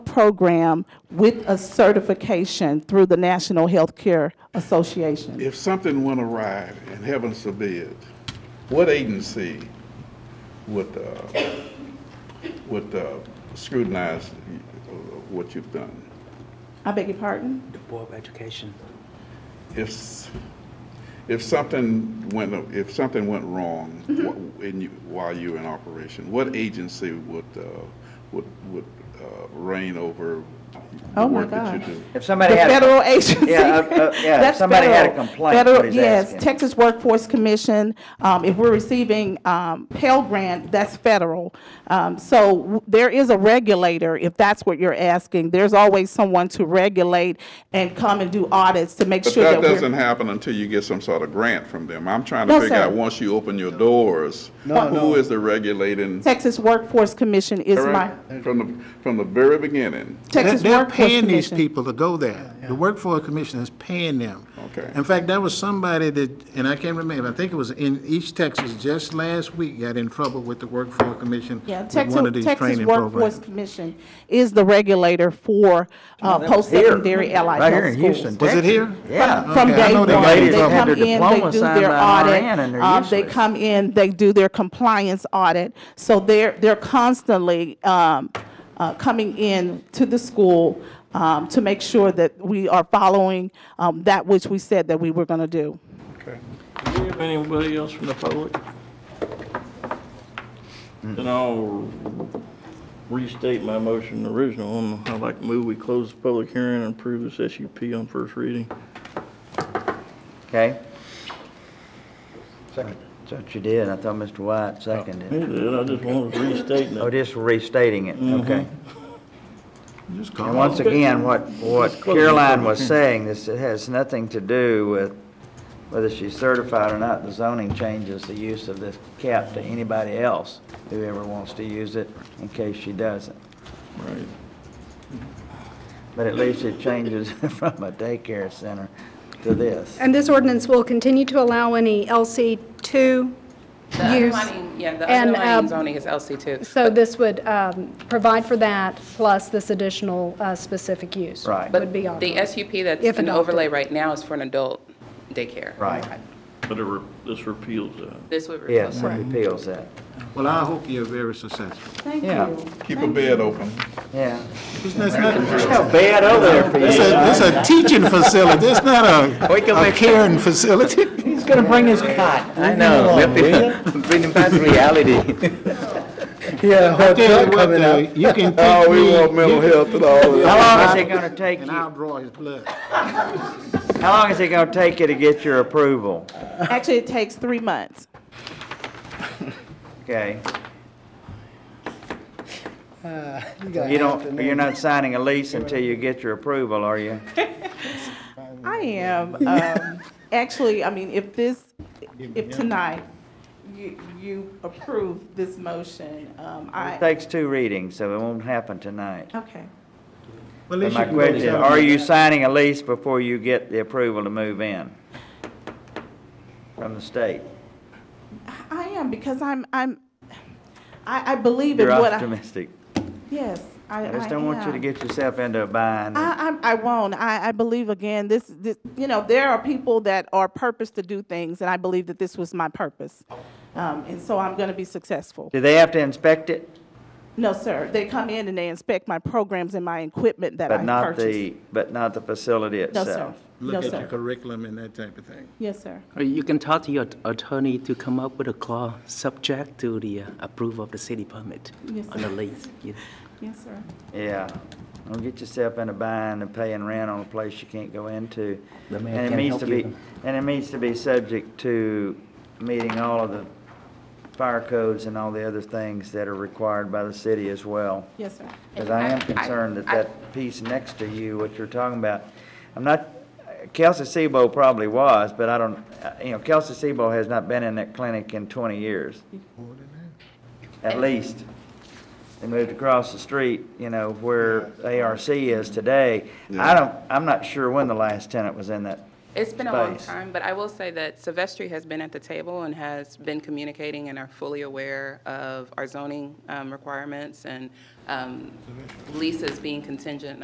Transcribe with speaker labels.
Speaker 1: program with a certification through the National Healthcare Association.
Speaker 2: If something went awry, and heaven forbid, what agency would, uh, would uh, scrutinize what you've done?
Speaker 1: I beg your pardon?
Speaker 3: The Board of Education.
Speaker 2: If, s- if something went, if something went wrong
Speaker 1: Mm-hmm.
Speaker 2: wh- in you, while you were in operation, what agency would, uh, would, would uh, reign over the
Speaker 1: Oh, my
Speaker 2: work that
Speaker 1: gosh.
Speaker 2: you do?
Speaker 3: If somebody
Speaker 1: The
Speaker 3: had.
Speaker 1: federal agency.
Speaker 3: Yeah, uh, uh, yeah, if
Speaker 1: That's
Speaker 3: somebody had a
Speaker 1: federal.
Speaker 3: complaint,
Speaker 1: Federal-
Speaker 3: what he's asking.
Speaker 1: Yes, Texas Workforce Commission, um, if we're receiving, um, Pell Grant, that's federal. Um, so w- there is a regulator, if that's what you're asking. There's always someone to regulate and come and do audits to make
Speaker 2: But
Speaker 1: sure that
Speaker 2: that
Speaker 1: we're.
Speaker 2: doesn't happen until you get some sort of grant from them. I'm trying to
Speaker 1: No,
Speaker 2: figure
Speaker 1: sir.
Speaker 2: out, once you open your doors,
Speaker 4: No,
Speaker 2: who
Speaker 4: no.
Speaker 2: is the regulating?
Speaker 1: Texas Workforce Commission is my,
Speaker 2: From the, from the very beginning.
Speaker 4: They're-
Speaker 1: Texas
Speaker 4: They're
Speaker 1: Workforce Commission.
Speaker 4: paying these people to go there. The Workforce Commission is paying them.
Speaker 2: Okay.
Speaker 4: In fact, there was somebody that, and I can't remember, I think it was in East Texas just last week, got in trouble with the Workforce Commission
Speaker 1: Yeah,
Speaker 4: with one
Speaker 1: Texas,
Speaker 4: of these
Speaker 1: Texas
Speaker 4: training
Speaker 1: Workforce
Speaker 4: programs.
Speaker 1: Commission is the regulator for uh, post-secondary allied
Speaker 3: Right here in
Speaker 1: health schools.
Speaker 3: Houston,
Speaker 4: Was it
Speaker 3: Texas.
Speaker 4: here?
Speaker 3: Yeah.
Speaker 1: From from
Speaker 4: Okay, I
Speaker 1: day
Speaker 4: know
Speaker 1: one,
Speaker 4: they got
Speaker 1: they
Speaker 4: these up.
Speaker 1: come
Speaker 3: Their
Speaker 1: in, they
Speaker 3: diploma
Speaker 1: do
Speaker 3: signed
Speaker 1: their
Speaker 3: by
Speaker 1: audit.
Speaker 3: RN and they're
Speaker 1: um, They
Speaker 3: useless.
Speaker 1: come in, they do their compliance audit. So they're, they're constantly um, uh, coming in to the school um, to make sure that we are following um, that which we said that we were going to do.
Speaker 2: Okay.
Speaker 5: Do we have anybody else from the public? Then I'll restate my motion, the original one. I'd like to move we close the public hearing and approve this SUP on first reading.
Speaker 3: Okay. Second. That's what you did. I thought Mr. White seconded
Speaker 5: I
Speaker 3: it.
Speaker 5: did, I just wanted to restate
Speaker 3: Oh,
Speaker 5: that.
Speaker 3: just restating it, okay.
Speaker 4: Just
Speaker 3: And
Speaker 4: call.
Speaker 3: once again, what, what
Speaker 5: close the
Speaker 3: Caroline
Speaker 5: public
Speaker 3: was saying, this it has nothing to do with whether she's certified or not. The zoning changes the use of this cap to anybody else who ever wants to use it in case she doesn't.
Speaker 5: Right.
Speaker 3: But at least it changes from a daycare center to this.
Speaker 6: And this ordinance will continue to allow any LC2
Speaker 7: The
Speaker 6: use.
Speaker 7: underlying- Yeah, the
Speaker 6: and,
Speaker 7: underlying
Speaker 6: uh,
Speaker 7: zoning is LC2.
Speaker 6: So this would um, provide for that, plus this additional uh, specific use.
Speaker 3: Right.
Speaker 6: Would be
Speaker 7: But the
Speaker 6: authorized.
Speaker 7: SUP that's
Speaker 6: If
Speaker 7: an
Speaker 6: adopted.
Speaker 7: overlay right now is for an adult daycare.
Speaker 3: Right.
Speaker 5: But it re- this repeals that.
Speaker 7: This would replace
Speaker 3: Yes, it repeals that.
Speaker 4: Well, I hope you're very successful.
Speaker 1: Thank
Speaker 3: Yeah.
Speaker 1: you.
Speaker 2: Keep a bed open.
Speaker 3: Yeah.
Speaker 4: It's not- it's not-
Speaker 3: Bad over there for
Speaker 4: It's a, it's a teaching facility, it's not a,
Speaker 3: Wake up,
Speaker 4: a
Speaker 3: wake up.
Speaker 4: caring facility.
Speaker 3: He's gonna bring his cot. I know. Bring him back to reality.
Speaker 8: Yeah, hot
Speaker 4: Tell you
Speaker 8: tub
Speaker 4: what,
Speaker 8: coming
Speaker 4: though,
Speaker 8: out.
Speaker 4: you can pick me.
Speaker 2: Oh, we want mental health and all that.
Speaker 3: How long is it gonna take you?
Speaker 4: And I'll draw his blood.
Speaker 3: How long is it gonna take you to get your approval?
Speaker 1: Actually, it takes three months.
Speaker 3: Okay,
Speaker 8: gotta
Speaker 3: you
Speaker 8: have
Speaker 3: don't,
Speaker 8: to
Speaker 3: you're not signing a lease until you get your approval, are you?
Speaker 1: I am. Um, actually, I mean, if this, if tonight you, you approve this motion, um,
Speaker 3: It
Speaker 1: I,
Speaker 3: takes two readings, so it won't happen tonight.
Speaker 1: okay.
Speaker 4: Well, at
Speaker 3: But
Speaker 4: least
Speaker 3: my
Speaker 4: you can go to
Speaker 3: question,
Speaker 4: town.
Speaker 3: are you signing a lease before you get the approval to move in? From the state?
Speaker 1: I am, because I'm, I'm, I, I believe in
Speaker 3: You're
Speaker 1: what I.
Speaker 3: optimistic.
Speaker 1: Yes, I, I
Speaker 3: I just don't want you to
Speaker 1: am.
Speaker 3: get yourself into a bind.
Speaker 1: I, I, I won't. I, I believe again, this, this, you know, there are people that are purpose to do things, and I believe that this was my purpose. Um, and so I'm gonna be successful.
Speaker 3: Do they have to inspect it?
Speaker 1: No, sir, they come in and they inspect my programs and my equipment that I
Speaker 3: But
Speaker 1: purchased.
Speaker 3: not the, but not the facility
Speaker 1: No, sir.
Speaker 3: itself?
Speaker 1: No,
Speaker 4: Look at your
Speaker 1: sir.
Speaker 4: curriculum and that type of thing.
Speaker 1: Yes, sir.
Speaker 9: Or You can talk to your at- attorney to come up with a clause subject to the uh, approval of the city permit
Speaker 1: Yes,
Speaker 9: on the lease. yeah.
Speaker 1: Yes, sir.
Speaker 3: Yeah. Don't get yourself in a bind and paying rent on a place you can't go into.
Speaker 9: The mayor
Speaker 3: And it
Speaker 9: can't
Speaker 3: needs to
Speaker 9: help
Speaker 3: be,
Speaker 9: you.
Speaker 3: and it needs to be subject to meeting all of the fire codes and all the other things that are required by the city as well.
Speaker 1: Yes, sir.
Speaker 3: Because I am
Speaker 7: I- I-
Speaker 3: concerned that
Speaker 7: I-
Speaker 3: that piece next to you, what you're talking about, I'm not, Kelsey Sebo probably was, but I don't, uh, you know, Kelsey Sebo has not been in that clinic in 20 years. At least. They moved across the street, you know, where ARC is today. I don't, I'm not sure when the last tenant was in that
Speaker 7: It's been a long
Speaker 3: Space.
Speaker 7: time, but I will say that Silvestri has been at the table and has been communicating and are fully aware of our zoning um, requirements and um, leases being contingent